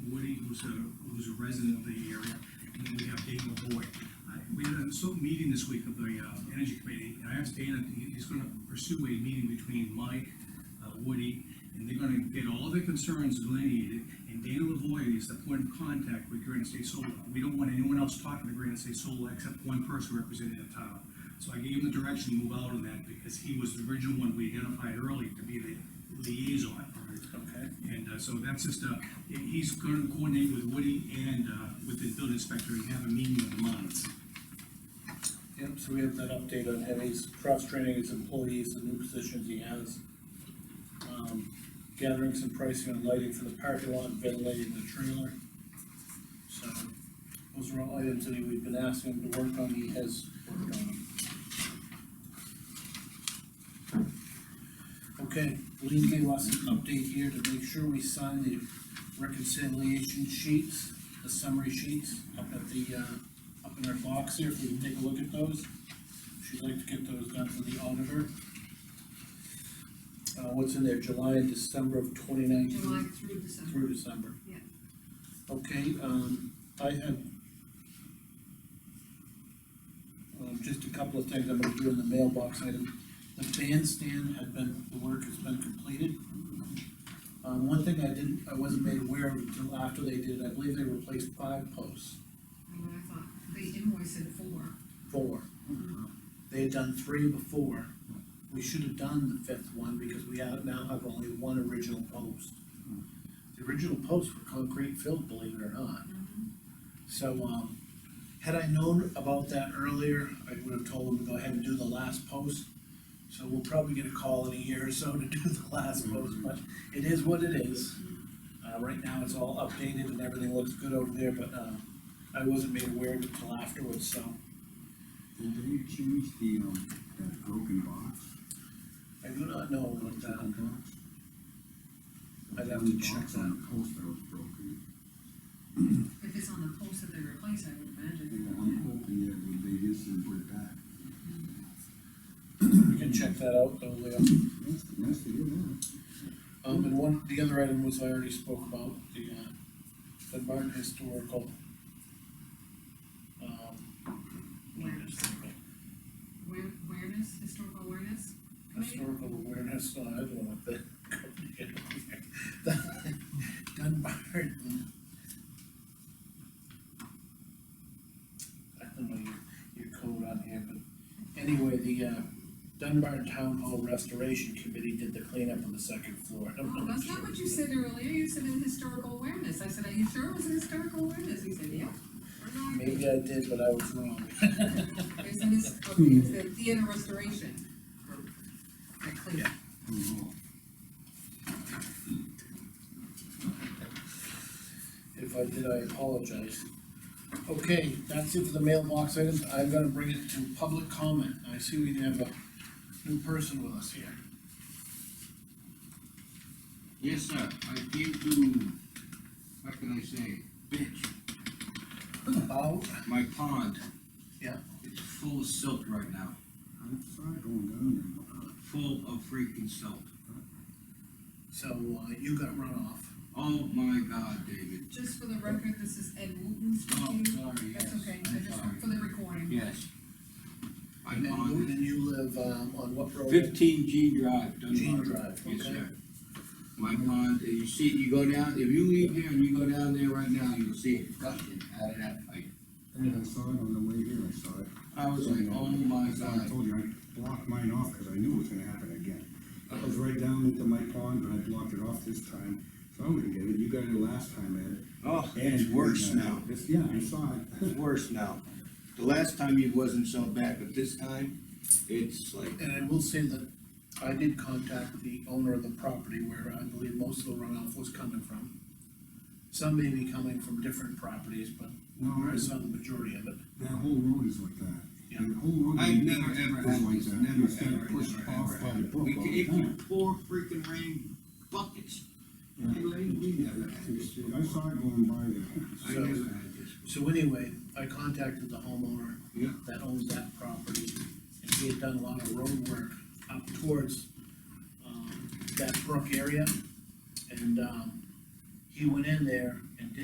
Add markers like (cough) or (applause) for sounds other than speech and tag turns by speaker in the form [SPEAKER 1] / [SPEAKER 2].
[SPEAKER 1] who's a, who's a resident of the area, and then we have Dave Lavoy. I- We had a sort of meeting this week of the, uh, Energy Committee, and I asked Dana, he- he's gonna pursue a meeting between Mike, uh, Woody, and they're gonna get all their concerns delineated, and Dana Lavoy is the point of contact with Granite State Solar. We don't want anyone else talking to Granite State Solar except one person representing the town. So I gave him the direction to move out on that, because he was the original one we identified early to be the liaison.
[SPEAKER 2] Okay.
[SPEAKER 1] And uh, so that's just, uh, he- he's gonna coordinate with Woody and uh, with the building inspector and have a meeting in the month.
[SPEAKER 2] Yep, so we have that update on Eddie's cross-training his employees, the new positions he has. Um, Gathering some pricing on lighting for the parking lot, ventilating the trailer. So, those are all items that we've been asking him to work on, he has worked on. them. Okay, Lean gave us an update here to make sure we sign the reconciliation sheets, the summary sheets up at the, uh, up in our box here, if we can take a look at those. She'd like to get those done for the auditor. Uh, what's in there, July and December of twenty nineteen?
[SPEAKER 3] July through December.
[SPEAKER 2] Through December.
[SPEAKER 3] Yeah.
[SPEAKER 2] Okay, um, I have um, just a couple of things I'm gonna do in the mailbox item. The bandstand had been, the work has been completed. Um, one thing I didn't, I wasn't made aware of until after they did, I believe they replaced five posts,
[SPEAKER 3] And what I thought, they invoiced it for,
[SPEAKER 2] four. They had done three before. We should have done the fifth one because we have, now have only one original post. The original posts were concrete filled, believe it or not. So, um, had I known about that earlier, I would have told them to go ahead and do the last post. So we'll probably get a call in a year or so to do the last post, but it is what it is. Uh, right now it's all updated and everything looks good over there, but, uh, I wasn't made aware of it until afterwards, so.
[SPEAKER 4] Did they change the, um, that broken box?
[SPEAKER 2] I do not know um, about
[SPEAKER 4] What's
[SPEAKER 2] that.
[SPEAKER 4] box?
[SPEAKER 2] Uh, I'd have to check
[SPEAKER 4] Box On a post that was broken.
[SPEAKER 3] if it's on the post that they replaced, I would
[SPEAKER 4] I'm
[SPEAKER 3] imagine.
[SPEAKER 4] hoping that when they just didn't put it back.
[SPEAKER 2] We can check that out though, Leo.
[SPEAKER 4] That's, that's the, yeah.
[SPEAKER 2] Um, and one, the other item was I already spoke about, the, uh, the Barton Historical. Um,
[SPEAKER 3] Awareness. Where, awareness, historical awareness? committee?
[SPEAKER 2] Historical awareness, uh, I don't know what the. the Dunbar. I don't know your, your code on here, but anyway, the, uh, Dunbar Town Hall Restoration Committee did the cleanup on the second floor. I'm
[SPEAKER 3] Oh, that's not what you said earlier, you said in historical awareness, I said, are you sure it was in historical awareness? He said, yeah. Or no, I think
[SPEAKER 2] Maybe I did, but I was wrong. (laughs)
[SPEAKER 3] It's in this, okay, it's the theater restoration group. That clean,
[SPEAKER 2] Yeah.
[SPEAKER 4] Oh,
[SPEAKER 2] If I did, I apologize. Okay, that's it for the mailbox items. I'm gonna bring it to public comment. I see we have a new person with us here.
[SPEAKER 5] Yes, sir, I came to, what can I say, bitch,
[SPEAKER 2] About,
[SPEAKER 5] my pond.
[SPEAKER 2] Yeah.
[SPEAKER 5] It's full of silt right now,
[SPEAKER 4] I'm sorry, going down there.
[SPEAKER 5] full of freaking silt.
[SPEAKER 2] so uh, you got runoff.
[SPEAKER 5] Oh my god, David.
[SPEAKER 3] just for the record, this is Ed Wooten
[SPEAKER 5] Oh,
[SPEAKER 3] speaking.
[SPEAKER 5] sorry, yes.
[SPEAKER 3] Mm-hmm. That's okay, I
[SPEAKER 5] I'm
[SPEAKER 3] just,
[SPEAKER 5] sorry.
[SPEAKER 3] for the recording.
[SPEAKER 5] Yes. I
[SPEAKER 2] And you,
[SPEAKER 5] pond
[SPEAKER 2] and you live, um, on what road?
[SPEAKER 5] fifteen G Drive, Dunbar.
[SPEAKER 2] Jean Drive,
[SPEAKER 5] Yes,
[SPEAKER 2] okay.
[SPEAKER 5] sir. My pond, you see, you go down, if you leave here and you go down there right now, you'll see it gushing out of that pipe.
[SPEAKER 4] And I saw it on the way here, I saw it.
[SPEAKER 5] I was like, oh my
[SPEAKER 4] So I
[SPEAKER 5] god.
[SPEAKER 4] told you, I blocked mine off because I knew it was gonna happen again. I was right down into my pond, but I blocked it off this time, so I'm gonna get it, you got it last time,
[SPEAKER 5] Oh,
[SPEAKER 4] Ed. And- uh, It's- Yeah, I saw it. (laughs)
[SPEAKER 5] It's worse now. The last time it wasn't so bad, but this time, it's like,
[SPEAKER 2] And I will say that I did contact the owner of the property where I believe most of the runoff was coming from. Some may be coming from different properties, but
[SPEAKER 4] No,
[SPEAKER 2] I
[SPEAKER 4] it's-
[SPEAKER 2] saw the majority of it.
[SPEAKER 4] That whole road is like that.
[SPEAKER 2] Yeah.
[SPEAKER 4] The whole road.
[SPEAKER 5] I've
[SPEAKER 4] is
[SPEAKER 5] never, ever had
[SPEAKER 4] like
[SPEAKER 5] Oh this,
[SPEAKER 4] that.
[SPEAKER 5] never,
[SPEAKER 4] It's been
[SPEAKER 5] ever,
[SPEAKER 4] pushed
[SPEAKER 5] never,
[SPEAKER 4] off
[SPEAKER 5] ever,
[SPEAKER 4] by the
[SPEAKER 5] ever.
[SPEAKER 4] book
[SPEAKER 5] We
[SPEAKER 4] all
[SPEAKER 5] can,
[SPEAKER 4] the
[SPEAKER 5] if you
[SPEAKER 4] time.
[SPEAKER 5] pour freaking rain buckets,
[SPEAKER 4] Yeah.
[SPEAKER 5] we we never had this.
[SPEAKER 4] It's- I saw it going by there.
[SPEAKER 5] I never had this.
[SPEAKER 2] So anyway, I contacted the homeowner.
[SPEAKER 5] Yeah.
[SPEAKER 2] That owns that property, and he had done a lot of road work up towards, um, that brook area. And, um, he went in there and did